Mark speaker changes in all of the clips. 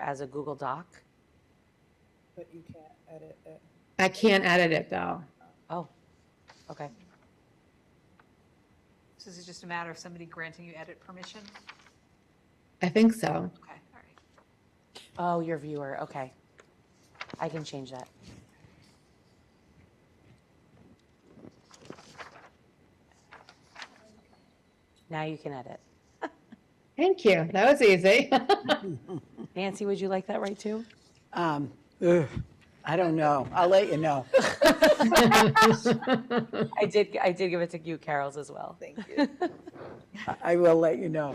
Speaker 1: as a Google Doc?
Speaker 2: But you can't edit it.
Speaker 3: I can't edit it though.
Speaker 1: Oh, okay.
Speaker 4: So this is just a matter of somebody granting you edit permission?
Speaker 3: I think so.
Speaker 4: Okay, all right.
Speaker 1: Oh, your viewer, okay. I can change that. Now you can edit.
Speaker 3: Thank you. That was easy.
Speaker 1: Nancy, would you like that right too?
Speaker 5: Um, ugh, I don't know. I'll let you know.
Speaker 1: I did, I did give it to you, Carol's as well.
Speaker 2: Thank you.
Speaker 5: I- I will let you know.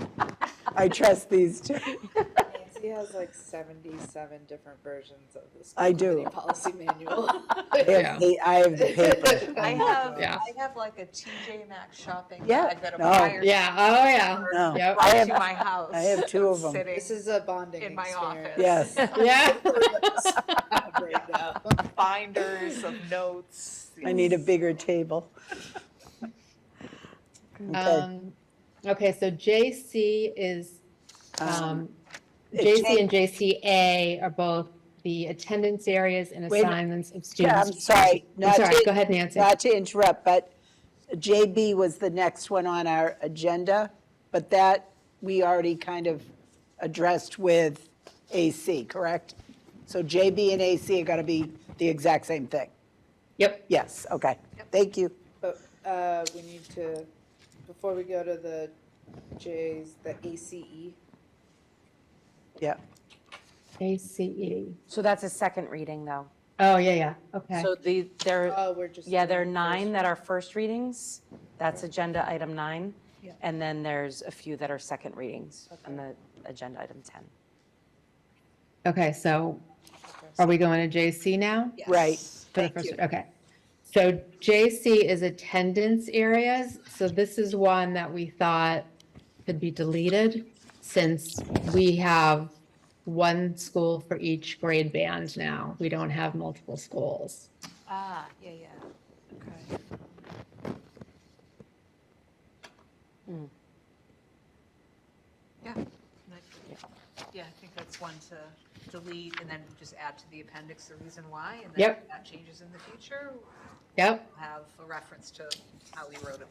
Speaker 5: I trust these two.
Speaker 2: Nancy has like seventy-seven different versions of the school
Speaker 5: I do.
Speaker 2: committee policy manual.
Speaker 5: I have the- I have the paper.
Speaker 4: I have,
Speaker 3: Yeah.
Speaker 4: I have like a TJ Maxx shopping
Speaker 2: Yeah.
Speaker 4: bag that a
Speaker 5: No.
Speaker 4: buyer
Speaker 3: Yeah, oh yeah.
Speaker 5: No.
Speaker 3: Yep.
Speaker 5: I
Speaker 4: brought
Speaker 5: have-
Speaker 4: to my house.
Speaker 5: I have two of 'em.
Speaker 4: sitting
Speaker 2: This is a bonding
Speaker 4: In my office.
Speaker 2: experience.
Speaker 5: Yes.
Speaker 3: Yeah.
Speaker 2: Right now.
Speaker 4: Binders of notes.
Speaker 5: I need a bigger table. Okay.
Speaker 3: Um, okay, so JC is,
Speaker 5: Um,
Speaker 3: um, JC and JCA are both the attendance areas and
Speaker 5: Wait a minute.
Speaker 3: assignments of
Speaker 5: yeah, I'm
Speaker 3: students.
Speaker 5: sorry.
Speaker 3: I'm
Speaker 5: not
Speaker 3: sorry,
Speaker 5: to-
Speaker 3: go ahead, Nancy.
Speaker 5: Not to interrupt, but JB was the next one on our agenda, but that we already kind of addressed with AC, correct? So JB and AC are going to be the exact same thing.
Speaker 3: Yep,
Speaker 5: Yes, okay. Thank you.
Speaker 2: But uh, we need to, before we go to the J's, the E. ACE,
Speaker 5: Yeah.
Speaker 3: ACE.
Speaker 1: So that's a second reading though.
Speaker 3: Oh, yeah, yeah, okay.
Speaker 1: So the, there,
Speaker 2: oh, we're just.
Speaker 1: yeah, there are
Speaker 2: doing first.
Speaker 1: nine that are first readings. That's agenda item nine.
Speaker 4: Yeah.
Speaker 1: And then there's a few that are second readings on the agenda item 10.
Speaker 3: Okay, so are we going to JC now?
Speaker 4: Yes.
Speaker 5: Right.
Speaker 3: For the first, okay. So JC is attendance areas. So this is one that we thought could be deleted since we have one school for each grade band now. We don't have multiple schools.
Speaker 4: Ah, yeah, yeah. Okay. Yeah. and I- Yeah, I think that's one to delete and then just add to the appendix the reason why. And then
Speaker 3: Yep.
Speaker 4: if that changes in the future,
Speaker 3: Yep.
Speaker 4: we'll have a reference to how we wrote it.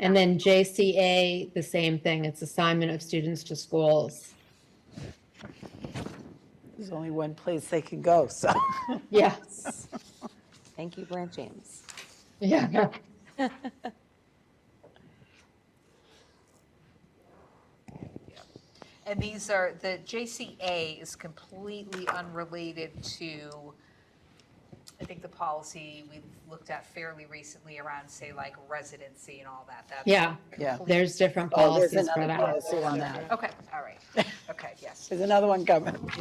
Speaker 3: And then JCA, the same thing. It's assignment of students to schools.
Speaker 5: There's only one place they can go, so.
Speaker 3: Yes.
Speaker 1: Thank you, Blanche James.
Speaker 3: Yeah.
Speaker 4: And these are, the JCA is completely unrelated to, I think, the policy we looked at fairly recently around, say, like residency and all that. That's-
Speaker 3: Yeah.
Speaker 5: Yeah.
Speaker 3: There's different
Speaker 5: Oh, there's
Speaker 3: policies for
Speaker 5: another
Speaker 3: that.
Speaker 5: policy on that.
Speaker 4: Okay, all right. Okay, yes.
Speaker 5: There's another one coming.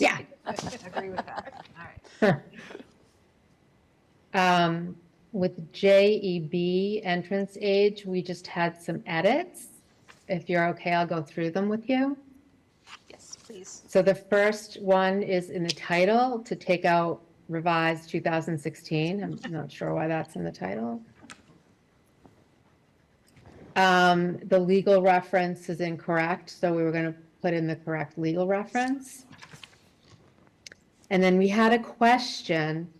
Speaker 3: Yeah.
Speaker 4: Agree with that. All right.
Speaker 3: Um, With JEB entrance age, we just had some edits. If you're okay, I'll go through them with you.
Speaker 4: Yes, please.
Speaker 3: So the first one is in the title to take out revised 2016. I'm not sure why that's in the title. Um, The legal reference is incorrect, so we were going to put in the correct legal reference. And then we had a question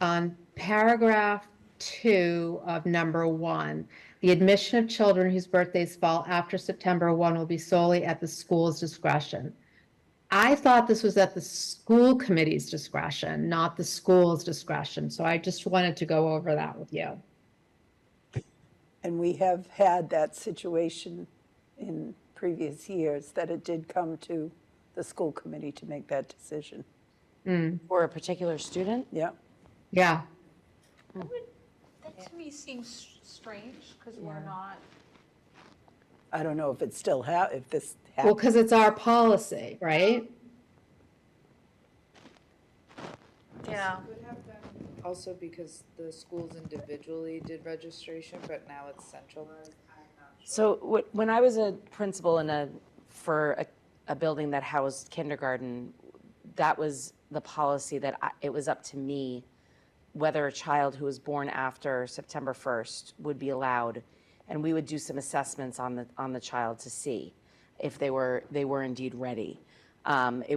Speaker 3: on paragraph two of number one. The admission of children whose birthdays fall after September 1 will be solely at the school's discretion. I thought this was at the school committee's discretion, not the school's discretion, so I just wanted to go over that with you.
Speaker 5: And we have had that situation in previous years, that it did come to the school committee to make that decision.
Speaker 1: Or a particular student?
Speaker 5: Yeah.
Speaker 3: Yeah,
Speaker 4: That to me seems strange because we're not.
Speaker 5: I don't know if it still ha, if this
Speaker 3: well,
Speaker 5: happened.
Speaker 3: because it's our policy, right?
Speaker 4: Yeah.
Speaker 2: Also because the schools individually did registration, but now it's centralized.
Speaker 1: So wh- when I was a principal in a, for a, a building that housed kindergarten, that was the policy that I, it was up to me whether a child who was born after September 1st would be allowed. And we would do some assessments on the, on the child to see if they were, they were indeed ready. Um, It